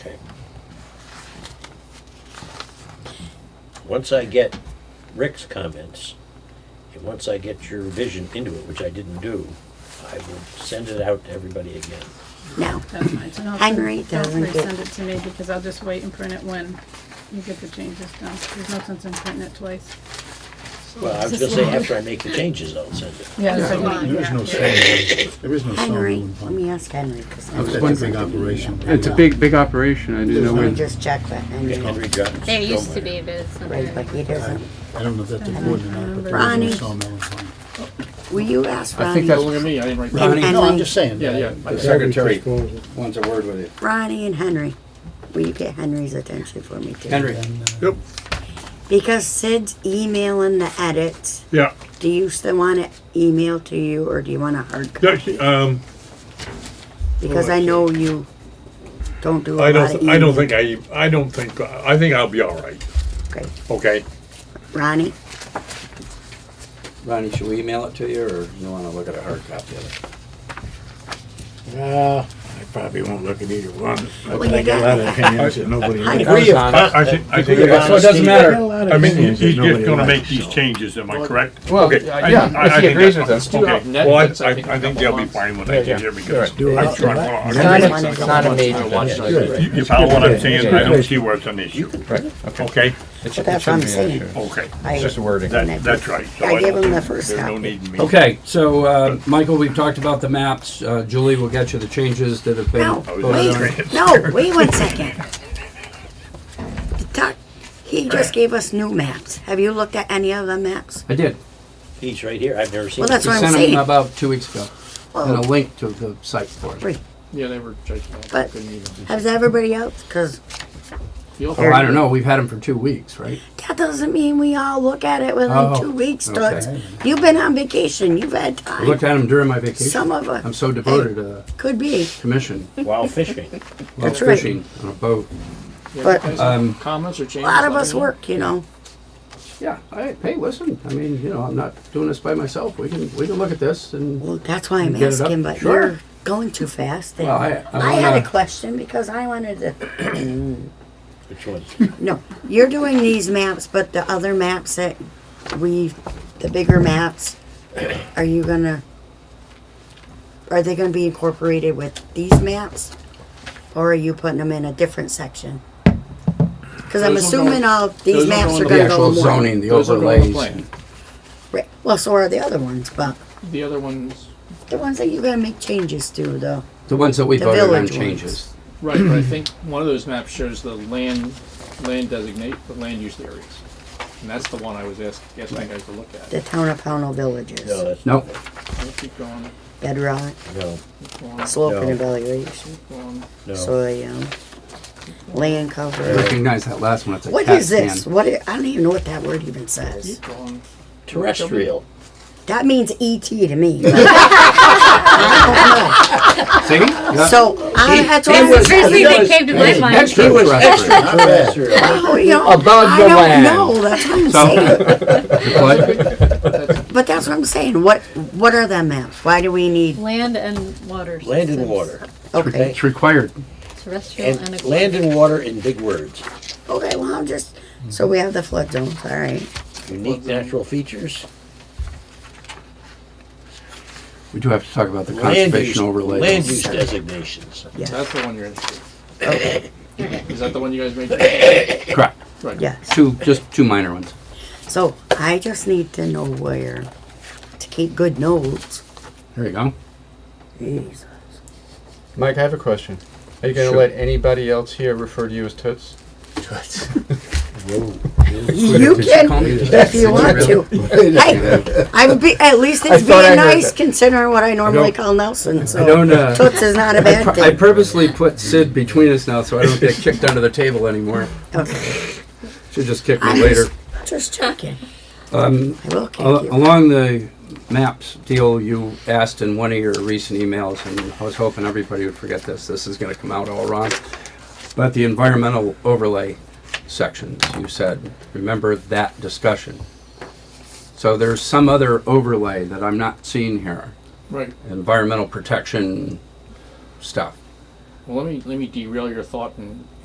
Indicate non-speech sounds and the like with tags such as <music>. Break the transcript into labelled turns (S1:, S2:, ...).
S1: once I get Rick's comments, and once I get your vision into it, which I didn't do, I will send it out to everybody again.
S2: No.
S3: That's fine. So don't-
S2: Henry doesn't
S3: Don't
S2: get-
S3: resend it to me because I'll just wait and print it when you get the changes done. There's no sense in printing it twice.
S1: Well, I was gonna say, after I make the changes, I'll send it.
S3: Yeah.
S4: Yeah, There is no sound, there is no sound.
S2: Henry,
S4: going
S2: let
S4: on.
S2: me ask Henry, because
S4: That's
S2: Henry
S4: a
S2: doesn't
S4: big
S2: do
S4: operation.
S2: that.
S5: It's a big, big operation. I didn't know
S2: Let me
S5: when.
S2: just check with
S1: Okay,
S2: Henry,
S1: Henry Johnson.
S6: There used to be, but it's not
S2: right, but
S6: there.
S2: he
S4: I
S2: doesn't.
S4: I don't know if that's a wood or not, but there
S2: Ronnie.
S4: is no sawmill. in Ronnie.
S2: Will you ask
S5: I think
S2: Ronnie?
S5: that's-
S7: Look at me, I didn't write that.
S2: And
S4: No, I'm
S2: Henry,
S4: just saying.
S5: Yeah, yeah.
S7: The secretary wants a word with you.
S2: Ronnie and Henry, will you get Henry's attention for me too?
S5: Henry.
S4: Yep.
S2: Because Sid's emailing the edits,
S8: Yeah,
S2: do you still want it emailed to you, or do you want a hard copy?
S8: yeah, she- um,
S2: Because I know you don't do a lot
S8: I
S2: of
S8: don't, I
S2: email.
S8: don't think I, I don't think, I think I'll be all right,
S2: Okay.
S8: okay?
S2: Ronnie,
S7: Ronnie, should we email it to you, or you wanna look at a hard copy of it?
S9: Uh, I probably won't look at either one.
S2: Well, you
S9: I got a lot of
S2: got-
S9: opinions that nobody.
S2: I-
S9: I
S1: Agree
S8: I think, I think,
S5: So it doesn't
S9: got a
S5: matter.
S9: lot of
S8: I mean,
S9: opinions
S8: he's
S9: that
S8: he's just
S9: nobody
S8: gonna
S9: likes,
S8: make these
S9: so.
S8: changes, am I correct?
S5: Well,
S8: Okay,
S5: yeah,
S8: I-
S5: yeah,
S8: I-
S5: if
S8: I
S5: he
S8: think
S5: agrees
S8: that's
S5: with us.
S8: fine.
S5: Yeah,
S8: Okay.
S5: net-
S8: Well, I,
S5: that's, I
S8: I
S5: think, a
S8: I think
S5: couple
S8: they'll be
S5: months.
S8: fine when I
S5: Yeah,
S8: get here because I'm
S9: I'll
S8: sure I'm
S9: do that.
S8: gonna.
S5: Not
S8: understand.
S5: a- it's not a major one.
S8: You you follow what I'm saying? I don't see where it's an issue,
S5: Right,
S8: okay?
S2: that's what I'm saying.
S8: Okay,
S2: I-
S5: wording.
S8: that, that's right. So
S2: I gave
S8: don't
S2: him the
S8: think
S2: first
S8: There's no
S2: copy.
S8: need in me.
S10: Okay, so, uh, Michael, we've talked about the maps. Uh, Julie will get you the changes that have been.
S2: No,
S8: I was
S2: wait,
S8: wondering.
S2: no, wait one second. The doc- He just gave us new maps. Have you looked at any of the maps?
S10: I did.
S1: He's right here, I've never seen
S2: Well,
S1: it.
S2: that's
S10: You
S2: what I'm
S10: sent them
S2: saying.
S10: about two weeks ago, and a
S2: Well,
S10: link to the site for it.
S2: Right.
S7: Yeah, they were judging.
S2: But- has everybody else? Because
S10: Oh, I don't know, we've had them for two weeks, right?
S2: that doesn't mean we all look at it within
S10: Oh,
S2: two weeks,
S10: okay.
S2: Toots. You've been on vacation. You've had
S10: I looked
S2: time.
S10: at them during my vacation.
S2: Some of
S10: I'm
S2: us
S10: so devoted uh, to the
S2: could be,
S10: commission,
S1: While fishing.
S10: love
S2: That's right.
S10: fishing on a boat.
S2: but a
S10: Um,
S7: Comments or changes?
S2: lot of us work, you know.
S10: yeah, I, hey, listen, I mean, you know, I'm not doing this by myself. We can, we can look at this and,
S2: Well, that's why I'm
S10: You get it up?
S2: asking, but
S10: Sure.
S2: you're going too fast. and
S10: Well, I- I
S2: I had a
S10: wanna-
S2: question because I wanted to
S1: Which
S2: <laughs>
S1: one?
S2: No, you're doing these maps, but the other maps that we, the bigger maps, are you gonna, are they gonna be incorporated with these maps? Or are you putting them in a different section? Cause I'm
S7: Those will go-
S2: assuming all
S7: those
S2: these
S7: will
S2: maps are
S7: go in
S10: the
S2: gonna go
S10: actual
S2: in one.
S10: zoning, the overlays.
S2: Right, Well, so are the other ones, but
S7: The other ones,
S2: the ones that you're gonna make changes to though.
S10: The ones that we
S2: The
S10: voted on
S2: village ones.
S10: changes.
S7: right, but I think one of those maps shows the land, land designate, the land use areas. And that's the one I was asking, asking you guys to look at.
S2: The town of Pownell
S1: No,
S2: villages,
S1: that's,
S10: Nope,
S7: We'll Keep going,
S2: bedrock,
S1: no,
S7: keep going,
S2: slope and
S1: No.
S2: evaluation,
S7: keep going.
S1: no.
S2: soil, land
S10: I
S2: cover.
S10: recognize that last one, it's a
S2: What
S10: cat
S2: is this?
S10: scan.
S2: What i I don't even know what that word even says.
S7: Keep going.
S1: Terrestrial.
S2: That means ET to me.
S10: See? Yeah.
S2: so I, that's what I
S10: He was-
S2: was saying.
S10: he
S6: Seriously, that came to my mind.
S10: Extra terrestrial.
S2: Oh, you know,
S10: Above
S2: I
S10: the
S2: don't know. <laughs>
S10: land.
S2: That's what I'm
S10: So-
S2: saying.
S10: What?
S2: But that's what I'm saying. What What are the maps? Why do we need?
S6: Land and waters.
S1: Land and
S6: It's
S1: water.
S2: Okay.
S10: It's required.
S6: Terrestrial and
S1: And
S6: aquatic.
S1: land and water in big words.
S2: Okay. Well, I'm just. So we have the flood zones. All right.
S1: Unique natural features.
S10: We do have to talk about the
S1: Land use,
S10: conservation
S1: land
S10: overlay.
S1: use designations.
S7: That's the one you're interested in. Is that the one you guys made?
S10: Correct.
S2: Yes.
S10: Two, just two minor ones.
S2: So I just need to know where to keep good notes.
S10: There you go.
S2: Jeez.
S11: Mike, I have a question. Are you going to
S10: Sure.
S11: let anybody else here refer to you as Toots?
S2: You can,
S10: call me?
S2: if you want to.
S10: <laughs>
S2: Hey, I'm be, at least
S10: I
S2: it's
S10: thought I
S2: being
S10: heard
S2: nice
S10: that.
S2: considering what I normally
S10: don't-
S2: call Nelson. So.
S10: I don't, uh,
S2: Toots is not a bad
S10: I
S2: thing.
S10: purposely put Sid between us now so I don't get kicked under the table anymore.
S2: Okay.
S10: She'll just kick me
S2: I'm
S10: later.
S2: just- Just checking.
S10: Um,
S2: I will kick
S10: al-
S2: you.
S10: Along the maps deal, you asked in one of your recent emails, and I was hoping everybody would forget this, this is gonna come out all wrong. But the environmental overlay sections, you said, remember that discussion. So there's some other overlay that I'm not seeing here,
S7: Right,
S10: environmental protection stuff.
S7: well, let me, let me derail your thought and